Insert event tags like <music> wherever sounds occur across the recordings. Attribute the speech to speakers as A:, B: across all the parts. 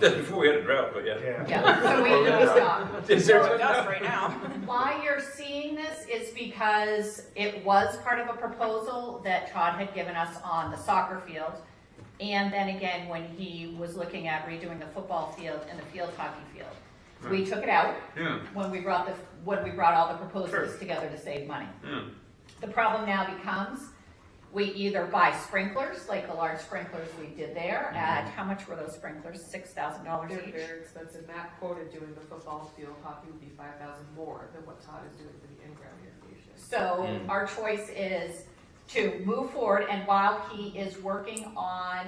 A: That's <laughs> before we had a drought, but yeah.
B: Yeah, so we need to
A: <laughs>
B: stop.
A: Is there-
C: So it does right now.
B: Why you're seeing this is because it was part of a proposal that Todd had given us on the soccer field. And then again, when he was looking at redoing the football field and the field hockey field. We took it out
A: Yeah,
B: when we brought the, when we brought all the proposals
A: Sure.
B: together to save money.
A: yeah.
B: The problem now becomes, we either buy sprinklers, like the large sprinklers we did there, at, how much were those sprinklers? Six thousand dollars
D: They're
B: each?
D: very expensive. Matt quoted doing the football field hockey would be five thousand more than what Todd is doing for the in-ground irrigation.
B: So
A: Mm.
B: our choice is to move forward, and while he is working on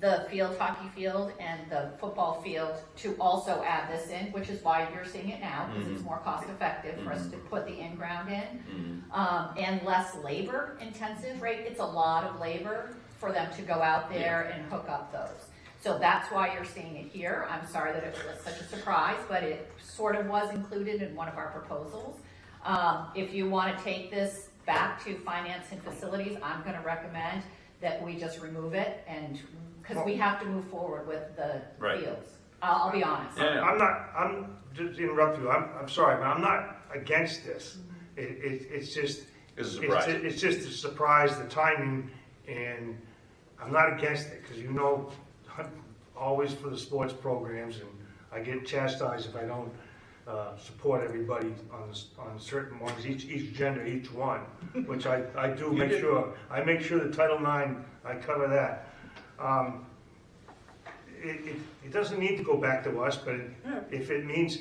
B: the field hockey field and the football field, to also add this in, which is why you're seeing it now, because it's
A: Mhm.
B: more cost effective for us to put the in-ground in,
A: Mm.
B: um, and less labor intensive, right? It's a lot of labor for them to go out there and hook up those. So that's why you're seeing it here. I'm sorry that it was such a surprise, but it sort of was included in one of our proposals. Um, if you wanna take this back to finance and facilities, I'm gonna recommend that we just remove it and, cause we have to move forward with the
A: Right.
B: fields. I'll, I'll be honest.
A: Yeah.
E: I'm not, I'm, just to interrupt you, I'm, I'm sorry, but I'm not against this. It, it, it's just.
A: It's
E: ju-
A: a surprise.
E: It's just a surprise, the timing, and I'm not against it, because you know, I'm always for the sports programs, and I get chastised if I don't, uh, support everybody on, s- on certain ones, each, each gender, each one, which I, I do
A: You
E: make
A: did.
E: sure, I make sure the Title IX, I cover that. Um, it, it, it doesn't need to go back to us, but if it means,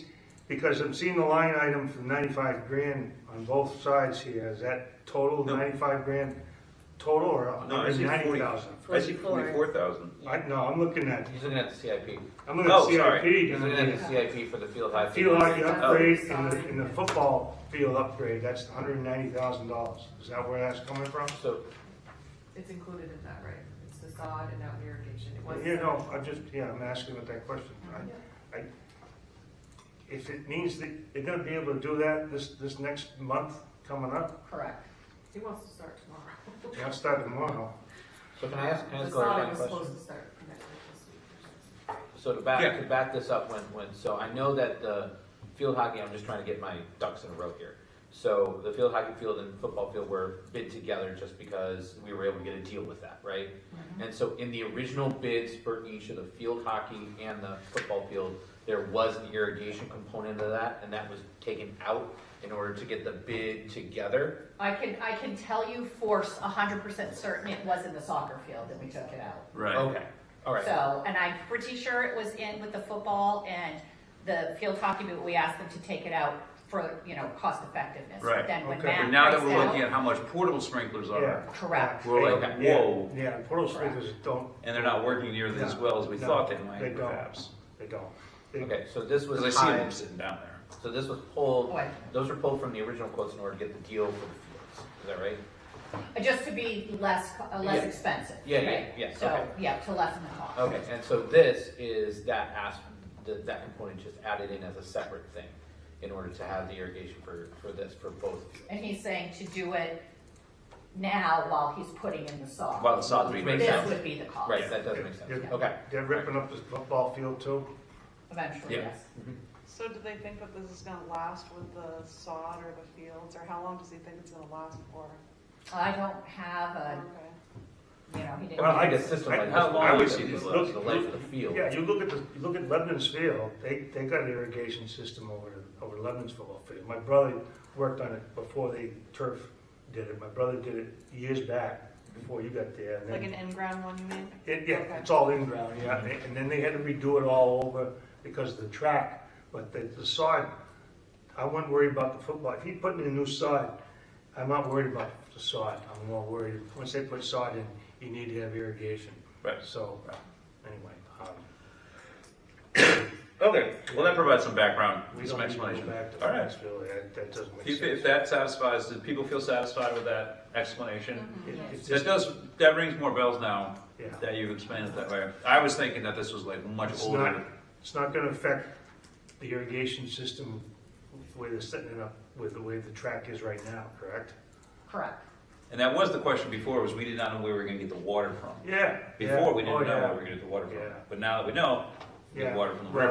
E: because I'm seeing the line item for ninety-five grand on both sides here, is that total
A: No.
E: ninety-five grand total or
A: No, I see
E: ninety
A: 40.
E: thousand?
A: I see forty-four thousand.
E: I, no, I'm looking at,
F: He's looking at the CIP.
E: I'm looking at
A: Oh,
E: CIP.
A: sorry.
F: He's
E: and
F: looking
E: I'm
F: at
E: looking
F: the CIP for the field hockey.
E: at Field hockey upgrade and the,
D: Sorry.
E: and the football field upgrade, that's hundred and ninety thousand dollars, is that where that's coming from?
F: So,
D: It's included in that, right? It's the sod and out irrigation. It was.
E: You know, I'm just, yeah, I'm asking with that question, I- if it means that they're gonna be able to do that this, this next month coming up,
B: Correct.
D: He wants to start tomorrow.
E: yeah, I'll start tomorrow.
F: so can I ask, can I
D: The
F: ask Gloria
D: sod
F: a
D: was
F: question?
D: supposed to start next week, this week or something.
F: So to back,
A: Yeah.
F: to back this up, when, when, so I know that the field hockey, I'm just trying to get my ducks in a row here. So the field hockey field and football field were bid together just because we were able to get a deal with that, right?
C: Mm-hmm.
F: And so in the original bids for each of the field hockey and the football field, there was an irrigation component of that, and that was taken out in order to get the bid together.
B: I can, I can tell you for a hundred percent certain it was in the soccer field that we took it out.
A: Right.
F: Okay, all right.
B: So, and I'm pretty sure it was in with the football and the field hockey, but we asked them to take it out for, you know, cost effectiveness.
G: Right.
B: But Then when
E: Okay.
B: Matt
G: But now that
B: priced
G: we're
B: out-
G: looking at how much portable sprinklers
E: Yeah.
G: are,
B: Correct.
G: we're
F: Okay.
G: like, whoa,
E: Yeah, Yeah, portal sprinklers don't,
G: and they're not working nearly as
E: No,
G: well as we
E: no,
G: thought they might
E: they don't.
G: perhaps.
E: they don't. They-
F: Okay, so this was
G: Because I see
F: tied-
G: them sitting down there.
F: So this was pulled,
B: What?
F: those were pulled from the original quotes in order to get the deal for the fields, is that right?
B: Just to be less, co- uh, less
F: Yeah.
B: expensive.
F: Yeah, yeah,
B: right?
F: yeah,
B: So,
F: okay.
B: yeah, to lessen the cost.
F: Okay, and so this is that as, that, that component just added in as a separate thing in order to have the irrigation for, for this, for both fields.
B: And he's saying to do it now while he's putting in the
G: While
B: sod.
G: the sod's being mixed
F: Which makes
B: This
F: sense.
G: out.
B: would be the cost.
F: Right, that does make sense,
E: Yeah.
F: okay.
E: They're ripping up this football field too?
B: Eventually,
G: Yeah.
B: yes.
C: So do they think that this is gonna last with the sod or the fields, or how long does he think it's gonna last for?
B: I don't have a,
C: Okay.
B: you know, he didn't.
E: Well,
F: I
E: I-
F: think a system
E: I-
F: like this,
G: how long
F: would
G: would it
F: be the
G: be?
F: life- the life of the field.
E: Yeah, you look at the, you look at Lebanon's field, they, they got an irrigation system over, the- over Lebanon's football field. My brother worked on it before they turf did it, my brother did it years back, before you got there. and
C: Like
E: then-
C: an in-ground one, you mean?
E: It, yeah,
C: Okay.
E: it's all in ground, yeah, and they- and then they had to redo it all over because of the track, but the, the sod, I wouldn't worry about the football, if he put in a new sod, I'm not worried about the sod, I'm more worried, once they put sod in, you need to have irrigation,
A: Right.
E: so, anyway, um,
A: Okay, well, that provides some background,
E: we don't
A: some
E: need to go
A: explanation.
E: back to
A: All right.
E: Foxville, that, that doesn't make
A: If, if
E: sense.
A: that satisfies, do people feel satisfied with that explanation?
G: Mm-hmm.
E: It- it's
A: That
E: just-
A: does, that rings more bells now
E: Yeah.
A: that you've explained it that way. I was thinking that this was like much
E: It's not,
A: older.
E: it's not gonna affect the irrigation system, the way they're setting it up, with the way the track is right now, correct?
B: Correct.
A: And that was the question before, was we did not know where we were gonna get the water from.
E: Yeah. yeah.
A: Before, we
E: Oh,
A: didn't know
E: yeah.
A: where we were gonna get the water from.
E: Yeah.
A: But now that we know,
G: get
E: Yeah.
G: water from the
E: Right.